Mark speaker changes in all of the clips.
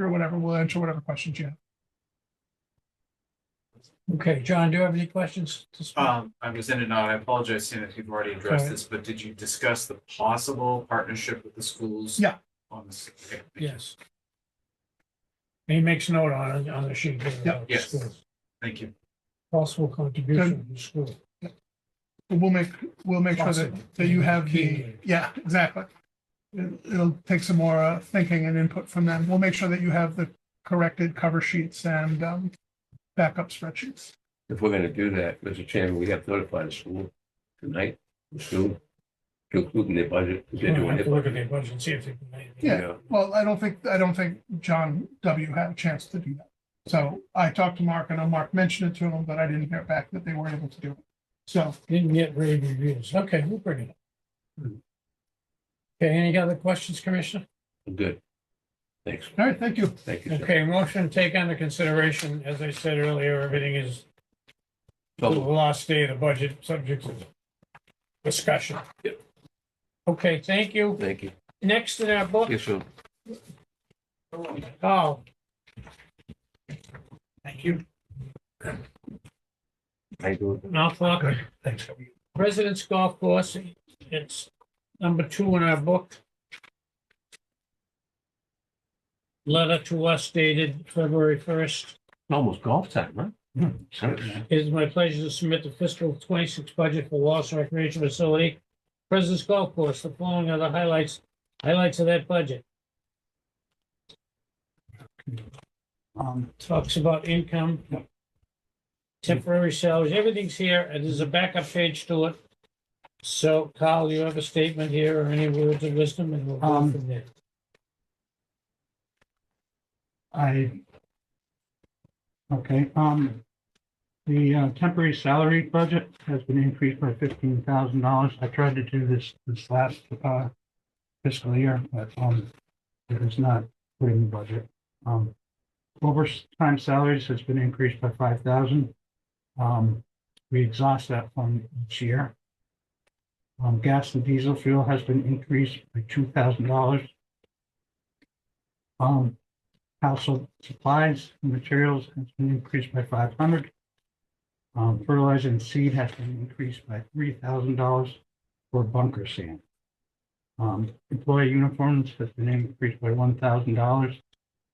Speaker 1: or whatever, we'll answer whatever questions you have.
Speaker 2: Okay, John, do you have any questions? to speak?
Speaker 3: Um, I'm just in and out. I apologize, Sam, if you've already addressed
Speaker 2: Okay.
Speaker 3: this, but did you discuss the possible partnership with the schools?
Speaker 1: Yeah.
Speaker 3: On this. okay, thank you.
Speaker 2: Yes. He makes note on, on the sheet. here about the
Speaker 3: Yes.
Speaker 2: schools.
Speaker 3: Thank you.
Speaker 2: Possible contribution to the school.
Speaker 1: But We'll make, we'll make sure that,
Speaker 2: Possible.
Speaker 1: that you have the,
Speaker 2: Keenly.
Speaker 1: yeah, exactly. It- It'll take some more uh, thinking and input from them. We'll make sure that you have the corrected cover sheets and um, backup spreadsheets.
Speaker 4: If we're gonna do that, Mr. Chairman, we have to notify the school tonight, soon, to include in their budget. if they're
Speaker 2: We'll
Speaker 4: doing
Speaker 2: have to
Speaker 4: it.
Speaker 2: Look at their budget and see if they can make it.
Speaker 1: Yeah. Well, I don't think, I don't think John W. had a chance to do that. So I talked to Mark, and Mark mentioned it to him, but I didn't hear back that they were able to do it. So
Speaker 2: Didn't get great reviews. Okay, we'll bring it up.
Speaker 4: Hmm.
Speaker 2: Okay, any other questions, Commissioner?
Speaker 4: Good. Thanks,
Speaker 1: All right, thank you.
Speaker 4: thank you, sir.
Speaker 2: Okay, motion to take under consideration, as I said earlier, everything is the
Speaker 4: So,
Speaker 2: last day of the budget subject of discussion.
Speaker 4: Yep.
Speaker 2: Okay, thank you.
Speaker 4: thank you.
Speaker 2: Next in our book,
Speaker 4: Yes, sir.
Speaker 2: Paul.
Speaker 5: Thank you.
Speaker 4: How you doing?
Speaker 2: Mount Falcon
Speaker 5: Thanks.
Speaker 2: President's Golf Course. It's number two in our book. Letter to us dated February first.
Speaker 4: Almost golf time, huh? Sure.
Speaker 2: It is my pleasure to submit the fiscal twenty-six budget for Wallace Recreation Facility. President's Golf Course, the following are the highlights, highlights of that budget.
Speaker 5: Um,
Speaker 2: Talks about income. Temporary salaries, everything's here, and there's a backup page to it. So Kyle, you have a statement here or any words of wisdom and we'll go
Speaker 5: Um,
Speaker 2: from there.
Speaker 5: I. Okay, um, the uh, temporary salary budget has been increased by fifteen thousand dollars. I tried to do this this last uh fiscal year, but um, it was not put in the budget. Um, overtime salaries has been increased by five thousand. Um, we exhaust that fund each year. Um, gas and diesel fuel has been increased by two thousand dollars. Um, Household supplies and materials has been increased by five hundred. Um, fertilizer and seed has been increased by three thousand dollars for bunker sand. Um, employee uniforms has been increased by one thousand dollars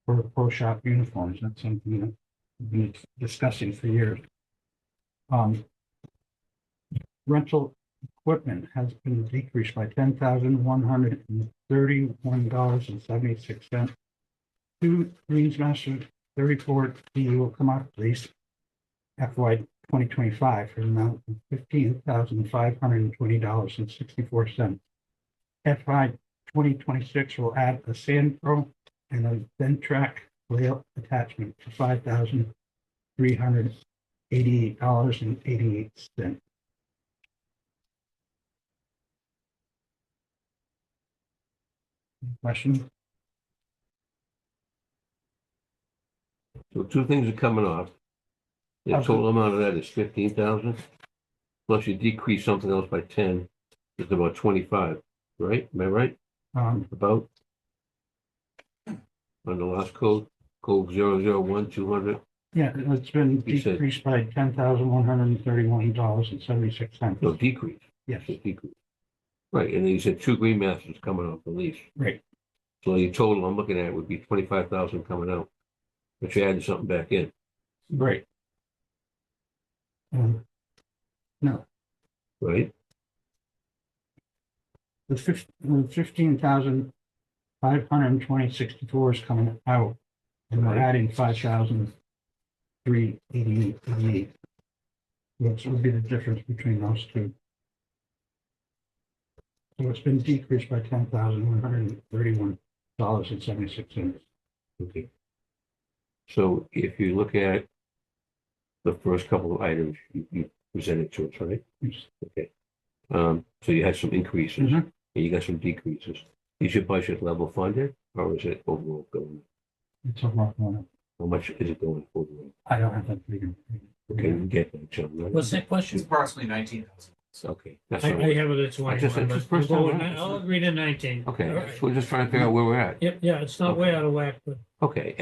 Speaker 5: for pro shop uniforms. That's something that we've been discussing for years. Um, rental equipment has been decreased by ten thousand one hundred and thirty-one dollars and seventy-six cents two Greens Master thirty-four D will come out, please. FY twenty twenty-five for an amount of fifteen thousand five hundred and twenty dollars and sixty-four cents. FY twenty twenty-six will add a sand pro and a vent track layout attachment for five thousand three hundred eighty-eight dollars and eighty-eight cents. Question?
Speaker 4: So two things are coming off. The
Speaker 5: Okay.
Speaker 4: total amount of that is fifteen thousand, plus you decrease something else by ten, it's about twenty-five, right? Am I right?
Speaker 5: Um,
Speaker 4: About? On the last code, code zero zero one two hundred,
Speaker 5: Yeah, it's been
Speaker 4: You said-
Speaker 5: decreased by ten thousand one hundred and thirty-one dollars and seventy-six cents.
Speaker 4: no decrease,
Speaker 5: Yes,
Speaker 4: it's a decrease. Right, and then you said two green masters coming off the lease.
Speaker 5: Right.
Speaker 4: So your total I'm looking at would be twenty-five thousand coming out, but you added something back in.
Speaker 5: right. Um,
Speaker 4: right?
Speaker 5: The fif- the fifteen thousand five hundred and twenty sixty-four is coming out, and we're
Speaker 4: Right.
Speaker 5: adding five thousand three eighty-eight eighty-eight. Which would be the difference between those two. So it's been decreased by ten thousand one hundred and thirty-one dollars and seventy-six cents.
Speaker 4: Okay. So if you look at the first couple of items you, you presented to us, right?
Speaker 5: Yes.
Speaker 4: Okay. Um, so you had some increases and
Speaker 5: Mhm.
Speaker 4: you got some decreases. Is your budget level funded or is it overall going?
Speaker 5: It's a rough one.
Speaker 4: How much is it going overall?
Speaker 5: I don't have that figure.
Speaker 4: Okay, you get that, John, right?
Speaker 2: What's that
Speaker 3: It's
Speaker 2: question?
Speaker 3: approximately nineteen thousand.
Speaker 4: Okay, that's
Speaker 2: I,
Speaker 4: all
Speaker 2: I
Speaker 4: right.
Speaker 2: have it at
Speaker 4: I just-
Speaker 2: twenty-one,
Speaker 4: it's
Speaker 2: but
Speaker 4: first
Speaker 2: we'll go
Speaker 4: time
Speaker 2: with
Speaker 4: around.
Speaker 2: ni- I'll agree to nineteen. All
Speaker 4: Okay,
Speaker 2: right.
Speaker 4: so we're just trying to figure out where we're at.
Speaker 2: Yep, yeah, it's not way out of whack, but
Speaker 4: Okay,